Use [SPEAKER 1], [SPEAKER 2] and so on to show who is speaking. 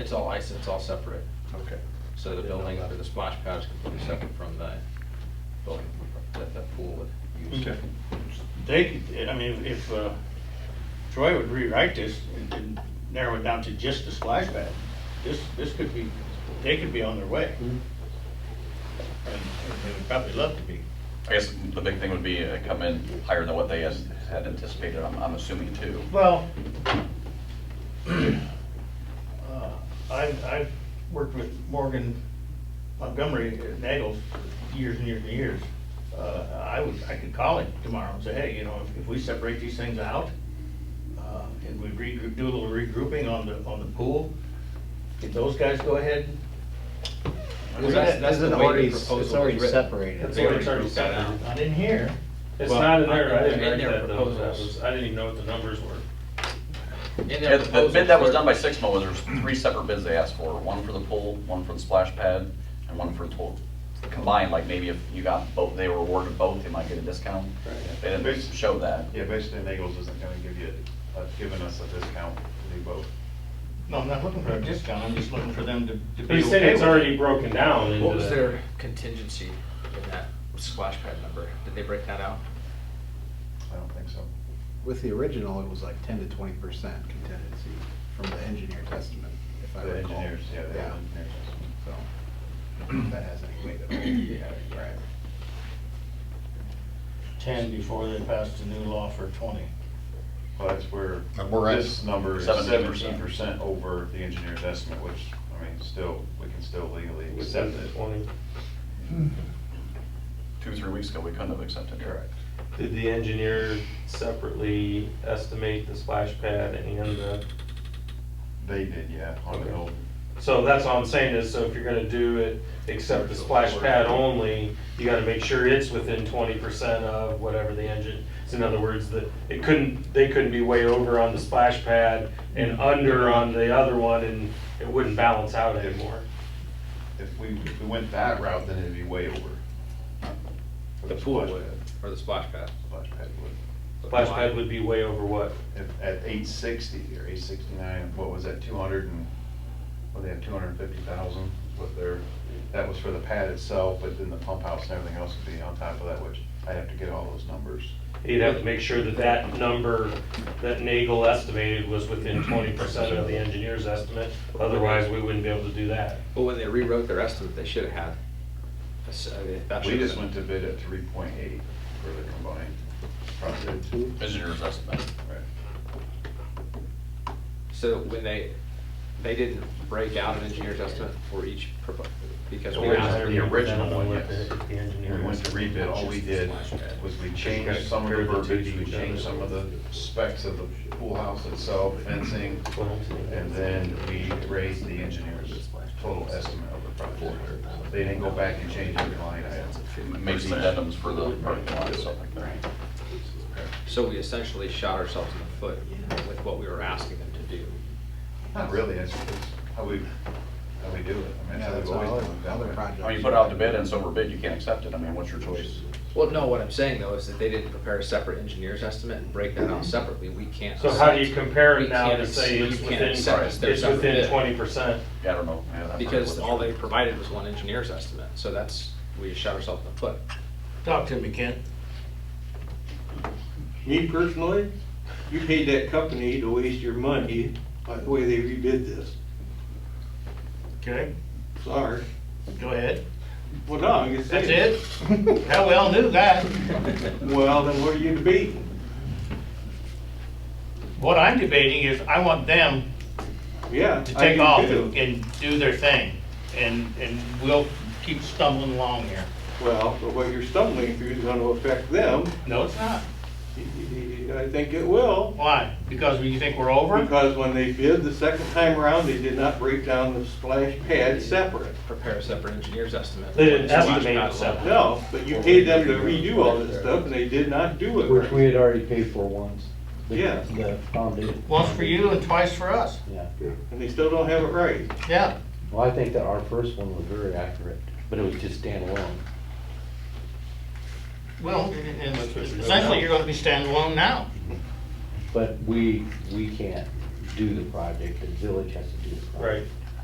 [SPEAKER 1] It's all ice, it's all separate,
[SPEAKER 2] Okay.
[SPEAKER 1] so the building for the splash pad is completely separate from the building that the pool would use.
[SPEAKER 2] Okay.
[SPEAKER 3] They, could- I mean, if uh, Troy would rewrite this and- and narrow it down to just the splash pad, this, this could be, they could be on their way. And and they would probably love to be.
[SPEAKER 4] I guess the big thing would be uh, come in higher than what they has- had anticipated, I'm, I'm assuming too.
[SPEAKER 3] Well, uh, I've, I've worked with Morgan Montgomery at Nagels for years and years and years. Uh, I would, I could call him tomorrow and say, hey, you know, if- if we separate these things out, uh, and we regroup, do a little regrouping on the, on the pool, did those guys go ahead?
[SPEAKER 1] Well, that's- that's the
[SPEAKER 5] Isn't it
[SPEAKER 1] way the
[SPEAKER 5] already-
[SPEAKER 1] proposal
[SPEAKER 5] it's already
[SPEAKER 1] was written.
[SPEAKER 5] separated.
[SPEAKER 1] It's already separated.
[SPEAKER 3] Not in here.
[SPEAKER 6] It's
[SPEAKER 1] Well,
[SPEAKER 6] not in there, I
[SPEAKER 1] in
[SPEAKER 6] didn't
[SPEAKER 1] their
[SPEAKER 6] write that down, that
[SPEAKER 1] proposals.
[SPEAKER 6] was, I didn't even know what the numbers were.
[SPEAKER 1] In
[SPEAKER 4] Yeah,
[SPEAKER 1] their
[SPEAKER 4] The bid that was done by
[SPEAKER 1] proposals,
[SPEAKER 4] Sixmo was there's three separate bids they asked for, one for the pool, one for the splash pad, and one for total. Combined, like maybe if you got both, they were awarded both, they might get a discount.
[SPEAKER 2] Right.
[SPEAKER 4] They didn't show that.
[SPEAKER 2] Yeah, basically Nagels isn't gonna give you, uh, giving us a discount to do both.
[SPEAKER 3] No, I'm not looking for a discount, I'm just looking for them to to be okay
[SPEAKER 6] They said it's
[SPEAKER 3] with it.
[SPEAKER 6] already broken down into
[SPEAKER 1] What was
[SPEAKER 6] the,
[SPEAKER 1] their contingency in that splash pad number? Did they break that out?
[SPEAKER 2] I don't think so.
[SPEAKER 5] With the original, it was like ten to twenty percent contingency from the engineer testament, if I
[SPEAKER 2] The
[SPEAKER 5] recall.
[SPEAKER 2] engineers, yeah, they have engineers.
[SPEAKER 5] So, if that has any weight at all. Yeah, right.
[SPEAKER 3] 10 before they passed the new law for 20.
[SPEAKER 2] Well, that's where
[SPEAKER 7] And we're at
[SPEAKER 2] this number is
[SPEAKER 4] 17%.
[SPEAKER 2] seventeen percent over the engineer's estimate, which, I mean, still, we can still legally
[SPEAKER 6] with
[SPEAKER 2] accept it.
[SPEAKER 6] the twenty.
[SPEAKER 4] Two, three weeks ago, we couldn't have accepted it.
[SPEAKER 2] Correct.
[SPEAKER 6] Did the engineer separately estimate the splash pad and the,
[SPEAKER 2] They did, yeah, on the
[SPEAKER 6] Okay.
[SPEAKER 2] old,
[SPEAKER 6] so that's all I'm saying is, so if you're gonna do it, except the splash pad only, you gotta make sure it's within twenty percent of whatever the engine, so in other words, that, it couldn't, they couldn't be way over on the splash pad and under on the other one, and it wouldn't balance out anymore.
[SPEAKER 2] if we, if we went that route, then it'd be way over. For
[SPEAKER 1] The pool
[SPEAKER 2] splash
[SPEAKER 1] would,
[SPEAKER 2] pad.
[SPEAKER 1] or the splash pad?
[SPEAKER 2] Splash pad would.
[SPEAKER 6] Splash pad would be way over what?
[SPEAKER 2] If- At eight sixty or eight sixty-nine, what was that, two hundred and, well, they had two hundred and fifty thousand, what their, that was for the pad itself, but then the pump house and everything else would be on top of that, which I'd have to get all those numbers.
[SPEAKER 6] You'd have to make sure that that number that Nagel estimated was within twenty percent of the engineer's estimate, otherwise we wouldn't be able to do that.
[SPEAKER 1] Well, when they rewrote their estimate, they should have had. a s- uh, that
[SPEAKER 2] We
[SPEAKER 1] should have
[SPEAKER 2] just
[SPEAKER 1] been-
[SPEAKER 2] went to bid at three point eight for the combined project.
[SPEAKER 4] Engineer's estimate.
[SPEAKER 2] Right.
[SPEAKER 1] So when they, they didn't break out an engineer's estimate for each, propo- because we
[SPEAKER 2] Or
[SPEAKER 1] asked.
[SPEAKER 2] the original one,
[SPEAKER 6] With
[SPEAKER 2] yes.
[SPEAKER 6] the- The engineer.
[SPEAKER 2] We went to rebid, all we did was we changed some of the verbiage, we changed some of the specs of the pool house itself, fencing, And then we raised the engineer's total estimate of the project. They didn't go back and change every line item.
[SPEAKER 4] Maybe the addendums for the parking lot, and stuff like that.
[SPEAKER 1] So we essentially shot ourselves in the foot with what we were asking them to do.
[SPEAKER 2] Not really, it's it's how we, how we do it. I mean,
[SPEAKER 5] Yeah,
[SPEAKER 2] that's how
[SPEAKER 5] that's
[SPEAKER 2] we've
[SPEAKER 5] all
[SPEAKER 2] always
[SPEAKER 5] other,
[SPEAKER 2] done it.
[SPEAKER 5] other projects.
[SPEAKER 4] I mean, Oh, you put it out to bid and it's over bid, you can't accept it, I mean, what's your choice?
[SPEAKER 1] Well, no, what I'm saying though is that they didn't prepare a separate engineer's estimate and break that out separately. We can't.
[SPEAKER 6] Mm-hmm. So how do
[SPEAKER 1] accept-
[SPEAKER 6] you compare
[SPEAKER 1] we
[SPEAKER 6] it now
[SPEAKER 1] can't
[SPEAKER 6] to say
[SPEAKER 1] accept-
[SPEAKER 6] it's
[SPEAKER 1] you can't
[SPEAKER 6] within,
[SPEAKER 1] accept
[SPEAKER 4] it's
[SPEAKER 6] it's
[SPEAKER 1] their separate
[SPEAKER 6] within
[SPEAKER 1] bid?
[SPEAKER 6] twenty percent?
[SPEAKER 4] Yeah, I don't know. Yeah, that's
[SPEAKER 1] Because
[SPEAKER 4] probably
[SPEAKER 1] all
[SPEAKER 4] what
[SPEAKER 1] they provided was one engineer's estimate, so that's, we shot ourselves in the foot.
[SPEAKER 3] Talk to me, Ken.
[SPEAKER 8] Me personally, you paid that company to waste your money by the way they rebid this.
[SPEAKER 3] Okay,
[SPEAKER 8] Sorry.
[SPEAKER 3] go ahead.
[SPEAKER 8] Well, no, I'm just
[SPEAKER 3] That's
[SPEAKER 8] saying.
[SPEAKER 3] it? Hell, we all knew that.
[SPEAKER 8] Well, then what are you debating?
[SPEAKER 3] What I'm debating is I want them
[SPEAKER 8] Yeah.
[SPEAKER 3] to
[SPEAKER 8] I
[SPEAKER 3] take
[SPEAKER 8] do
[SPEAKER 3] off
[SPEAKER 8] too.
[SPEAKER 3] and do their thing. And, and we'll keep stumbling along here.
[SPEAKER 8] Well, but what you're stumbling through is gonna affect them.
[SPEAKER 3] No, it's not.
[SPEAKER 8] I think it will.
[SPEAKER 3] Why? Because we think we're over?
[SPEAKER 8] Because when they bid the second time around, they did not break down the splash pad separate.
[SPEAKER 1] Prepare a separate engineer's estimate.
[SPEAKER 6] They didn't
[SPEAKER 1] Slash
[SPEAKER 6] estimate
[SPEAKER 1] pad
[SPEAKER 6] it
[SPEAKER 1] alone.
[SPEAKER 6] separate.
[SPEAKER 8] No, but you paid them to redo all this stuff and they did not do it.
[SPEAKER 9] Which we
[SPEAKER 8] right.
[SPEAKER 9] had already paid for once. The-
[SPEAKER 8] Yeah.
[SPEAKER 9] The foundation.
[SPEAKER 3] Once for you and twice for us.
[SPEAKER 9] Yeah.
[SPEAKER 8] And they still don't have it right.
[SPEAKER 3] Yeah.
[SPEAKER 9] Well, I think that our first one was very accurate, but it was just standalone.
[SPEAKER 3] Well, and essentially, you're gonna be standing alone now.
[SPEAKER 9] But we, we can't do the project, the village has to do the project.
[SPEAKER 6] Right,